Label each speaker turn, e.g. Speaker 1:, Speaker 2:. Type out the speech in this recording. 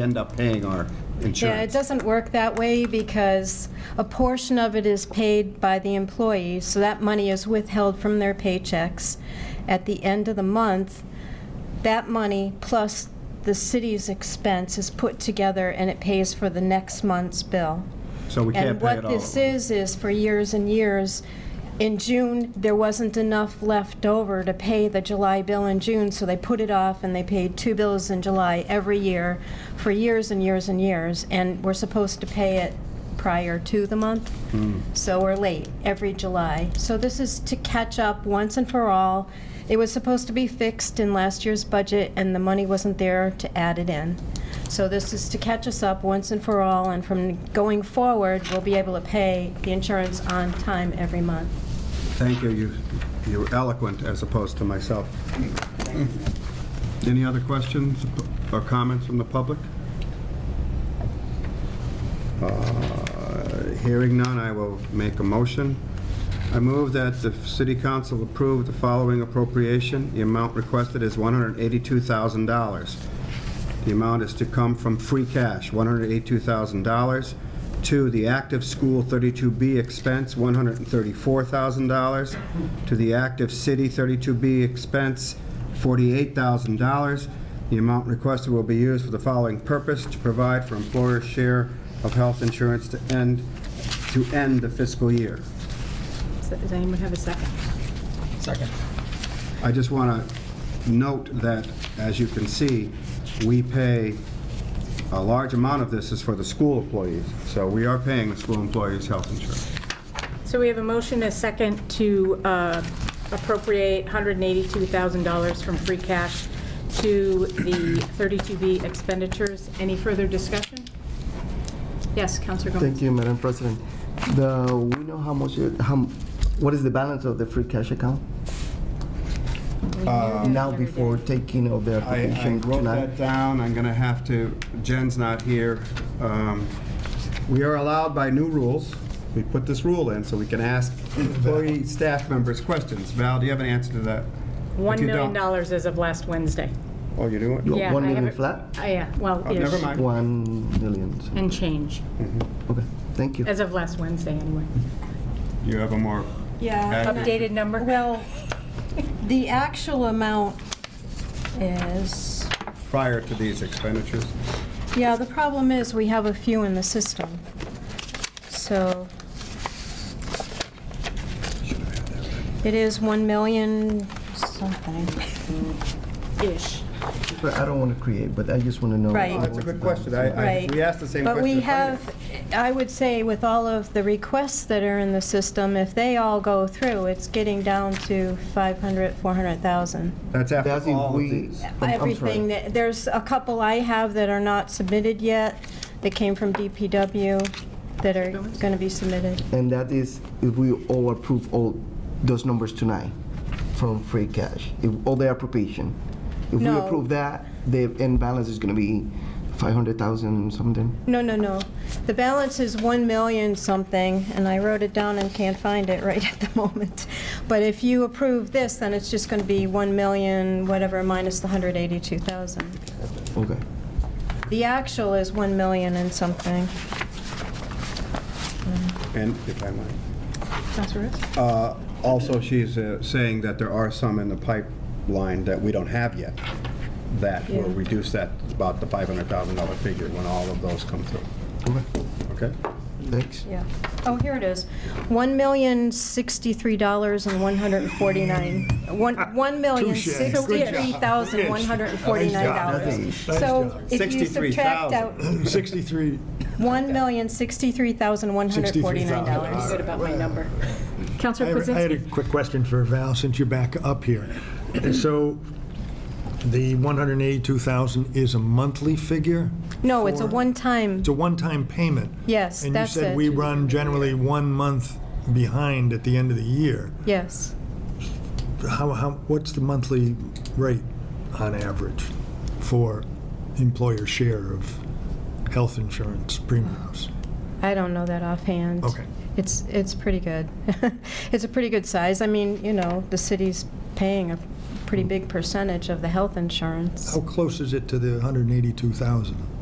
Speaker 1: end up paying our
Speaker 2: Yeah, it
Speaker 1: insurance.
Speaker 2: doesn't work that way because a portion of it is paid by the employee, so that money is withheld from their paychecks. At the end of the month, that money plus the city's expense is put together and it pays for the next month's bill.
Speaker 1: So we can't
Speaker 2: And
Speaker 1: pay it
Speaker 2: what
Speaker 1: all.
Speaker 2: this is, is for years and years, in June, there wasn't enough left over to pay the July bill in June, so they put it off and they paid two bills in July every year for years and years and years. And we're supposed to pay it prior to the month,
Speaker 1: Hmm.
Speaker 2: so we're late every July. So this is to catch up once and for all. It was supposed to be fixed in last year's budget, and the money wasn't there to add it in. So this is to catch us up once and for all, and from going forward, we'll be able to pay the insurance on time every month.
Speaker 1: Thank you, you, you were eloquent as opposed to myself. Any other questions or comments from the public? Uh, Hearing none, I will make a motion. I move that the city council approve the following appropriation. The amount requested is $182,000. The amount is to come from free cash, $182,000. To the active school 32B expense, $134,000. To the active city 32B expense, $48,000. The amount requested will be used for the following purpose: to provide for employer's share of health insurance to end, to end the fiscal year.
Speaker 2: Does anyone have a second?
Speaker 3: Second.
Speaker 1: I just want to note that, as you can see, we pay, a large amount of this is for the school employees, so we are paying the school employees' health insurance.
Speaker 4: So we have a motion, a second, to uh, appropriate $182,000 from free cash to the 32B expenditures. Any further discussion? Yes, Counselor Gomez?
Speaker 3: Thank you, Madam President. The, we know how much, it- how, what is the balance of the free cash account? Now before taking of the
Speaker 1: Uh, I I
Speaker 3: application
Speaker 1: wrote that
Speaker 3: tonight?
Speaker 1: down, I'm going to have to, Jen's not here. Um, We are allowed by new rules, we put this rule in so we can ask employee, staff members questions. Val, do you have an answer to that? If
Speaker 4: $1
Speaker 1: you
Speaker 4: million
Speaker 1: don't-
Speaker 4: dollars as of last Wednesday.
Speaker 1: Oh, you do it?
Speaker 3: You-
Speaker 4: Yeah,
Speaker 3: one
Speaker 4: I
Speaker 3: million
Speaker 4: have it-
Speaker 3: flat?
Speaker 4: Uh, Yeah, well,
Speaker 1: Oh,
Speaker 4: ish.
Speaker 1: never mind.
Speaker 3: One million, so-
Speaker 4: And change,
Speaker 3: okay, thank you.
Speaker 4: as of last Wednesday, anyway.
Speaker 1: You have a more
Speaker 2: Yeah.
Speaker 1: accurate-
Speaker 4: Updated number?
Speaker 2: Well, the actual amount is,
Speaker 1: prior to these expenditures?
Speaker 2: yeah, the problem is, we have a few in the system. So
Speaker 1: Should have had that.
Speaker 2: it is 1 million something.
Speaker 4: Ish.
Speaker 3: But I don't want to create, but I just want to know.
Speaker 2: Right.
Speaker 1: Oh, That's a good question. I- I,
Speaker 2: Right.
Speaker 1: we asked the same
Speaker 2: But
Speaker 1: question.
Speaker 2: we
Speaker 1: of finance.
Speaker 2: have, I would say with all of the requests that are in the system, if they all go through, it's getting down to 500, 400,000.
Speaker 1: That's
Speaker 3: That's
Speaker 1: after
Speaker 3: if
Speaker 1: all of
Speaker 3: we-
Speaker 1: these.
Speaker 3: I'm- I'm
Speaker 2: Everything,
Speaker 3: sorry.
Speaker 2: that there's a couple I have that are not submitted yet, that came from DPW, that are going to be submitted.
Speaker 3: And that is if we all approve all those numbers tonight from free cash, if all the appropriation. If we
Speaker 2: No.
Speaker 3: approve that, the end balance is going to be 500,000 something.
Speaker 2: No, no, no. The balance is 1 million something, and I wrote it down and can't find it right at the moment. But if you approve this, then it's just going to be 1 million, whatever, minus the 182,000.
Speaker 3: Okay.
Speaker 2: The actual is 1 million and something.
Speaker 1: And if I might.
Speaker 4: Counselor Risk?
Speaker 1: Uh, Also, she's uh, saying that there are some in the pipeline that we don't have yet that will
Speaker 2: Yeah.
Speaker 1: reduce that, about the $500,000 figure when all of those come through.
Speaker 3: Okay.
Speaker 1: Okay?
Speaker 3: Thanks.
Speaker 2: Yeah. Oh, here it is. One million sixty-three dollars and one hundred and forty-nine, one,
Speaker 5: Ah,
Speaker 2: one million sixty-three thousand one hundred and forty-nine dollars.
Speaker 3: Nice
Speaker 2: So if you subtract out
Speaker 5: Sixty-three.
Speaker 2: one million sixty-three thousand one hundred and forty-nine dollars.
Speaker 4: Good about my number.
Speaker 5: I
Speaker 4: Counselor
Speaker 5: have- I had
Speaker 4: Krasinski?
Speaker 5: a quick question for Val, since you're back up here. So the 182,000 is a monthly figure?
Speaker 2: No, it's a
Speaker 5: for-
Speaker 2: one-time,
Speaker 5: It's a one-time payment?
Speaker 2: Yes, that's
Speaker 5: And you
Speaker 2: it.
Speaker 5: said we run generally one month behind at the end of the year.
Speaker 2: yes.
Speaker 5: How, how, what's the monthly rate on average for employer share of health insurance premiums?
Speaker 2: I don't know that offhand.
Speaker 5: Okay.
Speaker 2: It's, it's pretty good. It's a pretty good size. I mean, you know, the city's paying a pretty big percentage of the health insurance.
Speaker 5: How close is it to the 182,000?